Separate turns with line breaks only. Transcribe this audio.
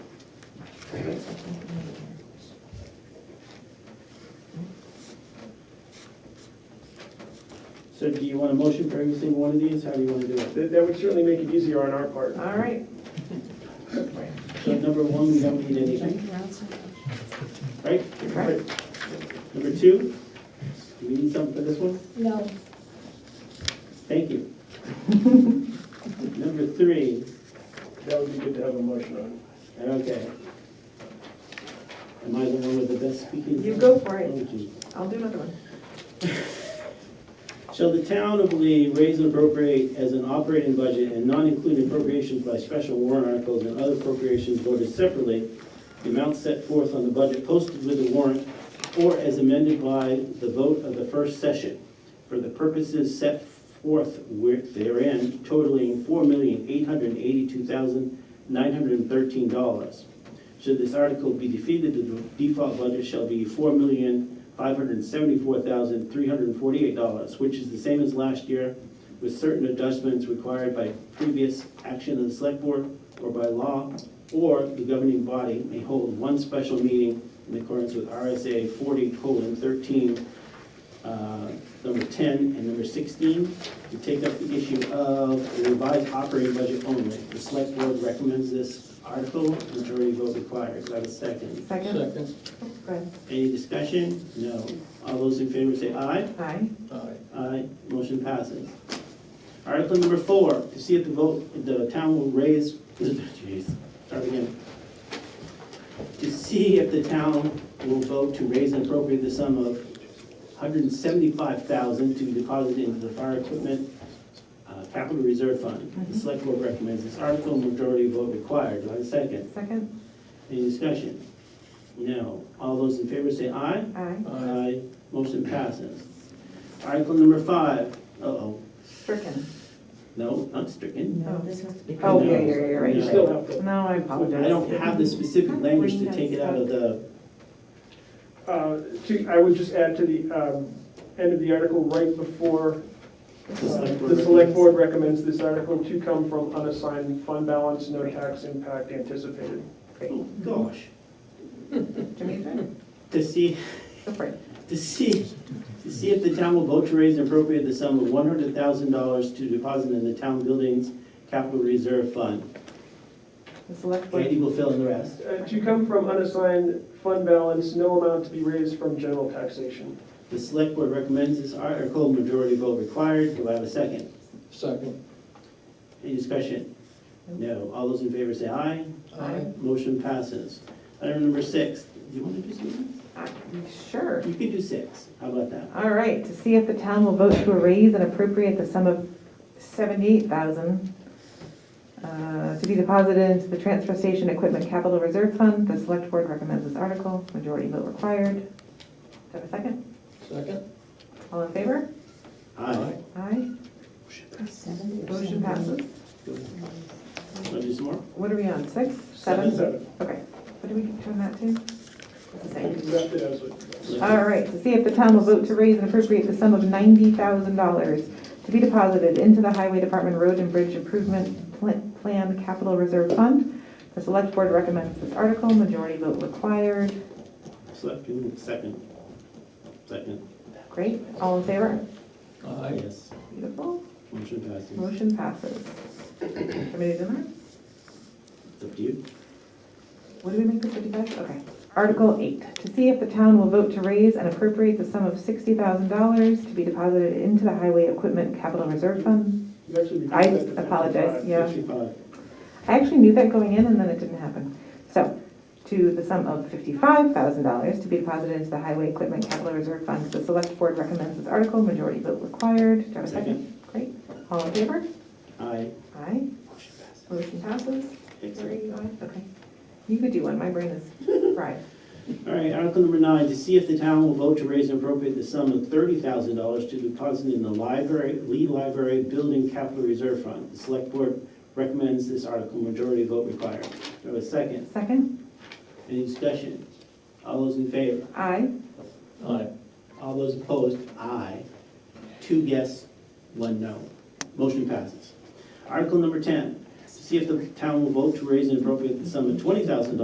So do you want a motion for every single one of these? How do you want to do it?
That that would certainly make it easier on our part.
All right.
So number one, we don't need anything, right?
Right.
Number two, do we need something for this one?
No,
Thank you. Number three,
That would be good to have a motion on.
okay. Am I the one with the best speaking?
You go for it.
Thank you.
I'll do another one.
Shall the town of Lee raise and appropriate as an operating budget and not include appropriations by special warrant articles and other appropriations voted separately, the amount set forth on the budget posted with the warrant or as amended by the vote of the first session for the purposes set forth where- therein totaling four million eight hundred eighty-two thousand nine hundred thirteen dollars. Should this article be defeated, the default budget shall be four million, five hundred and seventy-four thousand, three hundred and forty-eight dollars, which is the same as last year, with certain adjustments required by previous action of the select board or by law, or the governing body may hold one special meeting in accordance with RSA forty colon thirteen, uh, number ten and number sixteen, to take up the issue of a revised operating budget only. The select board recommends this article, majority vote required. Do I have a second?
Second?
Second.
Go ahead.
Any discussion? No. All those in favor say aye.
Aye.
Aye.
Aye, motion passes. Article number four, to see if the vote, if the town will raise, jeez, start again. To see if the town will vote to raise and appropriate the sum of $175,000 to be deposited into the fire equipment uh, capital reserve fund. The select board recommends this article, majority vote required. Do I have a second?
Second?
Any discussion? No. All those in favor say aye.
Aye.
Aye.
Motion passes. Article number five, uh-oh,
Stricken.
no, not stricken.
No,
this has to be.
Oh, yeah, yeah, yeah, right.
You still have to,
No, I
I
apologize.
don't have the specific language to take it out of the,
uh, to- I would just add to the um, end of the article, right before
the
uh,
select board.
the select board recommends this article to come from unassigned fund balance, no tax impact anticipated.
Oh, gosh.
Jamaica?
To see,
Go for it.
to see, to see if the town will vote to raise and appropriate the sum of one hundred thousand dollars to deposit in the town buildings capital reserve fund.
The select
Andy
board.
will fill in the rest.
Uh, To come from unassigned fund balance, no amount to be raised from general taxation.
The select board recommends this article, majority vote required. Do I have a second?
Second.
Any discussion? No. All those in favor say aye.
Aye.
Motion passes. Item number six, do you want to do something?
Aye. Sure.
You can do six. How about that?
All right, to see if the town will vote to raise and appropriate the sum of seventy-eight thousand uh, to be deposited into the transfer station equipment capital reserve fund. The select board recommends this article, majority vote required. Do I have a second?
Second.
All in favor?
Aye.
Aye. Motion passes.
Want to do some more?
What are we on, six?
Seven.
Okay, what do we turn that to? It's the
You
same.
left it as a-
All right, to see if the town will vote to raise and appropriate the sum of ninety thousand dollars to be deposited into the Highway Department Road and Bridge Improvement Pl- Plan Capital Reserve Fund. The select board recommends this article, majority vote required.
Select, mm, second. Second.
Great, all in favor?
Aye.
Yes.
Beautiful,
Motion passes.
motion passes. Somebody do that?
It's up to you.
What do we make the fifty-five? Okay. Article eight, to see if the town will vote to raise and appropriate the sum of sixty thousand dollars to be deposited into the Highway Equipment Capital Reserve Fund.
you actually reduced
I
that to 55.
apologize, yeah.
Fifty-five.
I actually knew that going in and then it didn't happen. So, to the sum of fifty-five thousand dollars to be deposited into the Highway Equipment Capital Reserve Fund. The select board recommends this article, majority vote required. Do I have a second? Great. All in favor?
Aye.
Aye.
Motion passes.
Motion passes. Three,
Excellent.
aye. Okay. You could do one, my brain is fried.
All right, article number nine, to see if the town will vote to raise and appropriate the sum of thirty thousand dollars to deposit in the library, Lee Library Building Capital Reserve Fund. The select board recommends this article, majority vote required. Do I have a second?
Second?
Any discussion? All those in favor?
Aye.
Aye.
All those opposed? Aye. Two yes, one no. Motion passes. Article number ten, to see if the town will vote to raise and appropriate the sum of twenty thousand dollars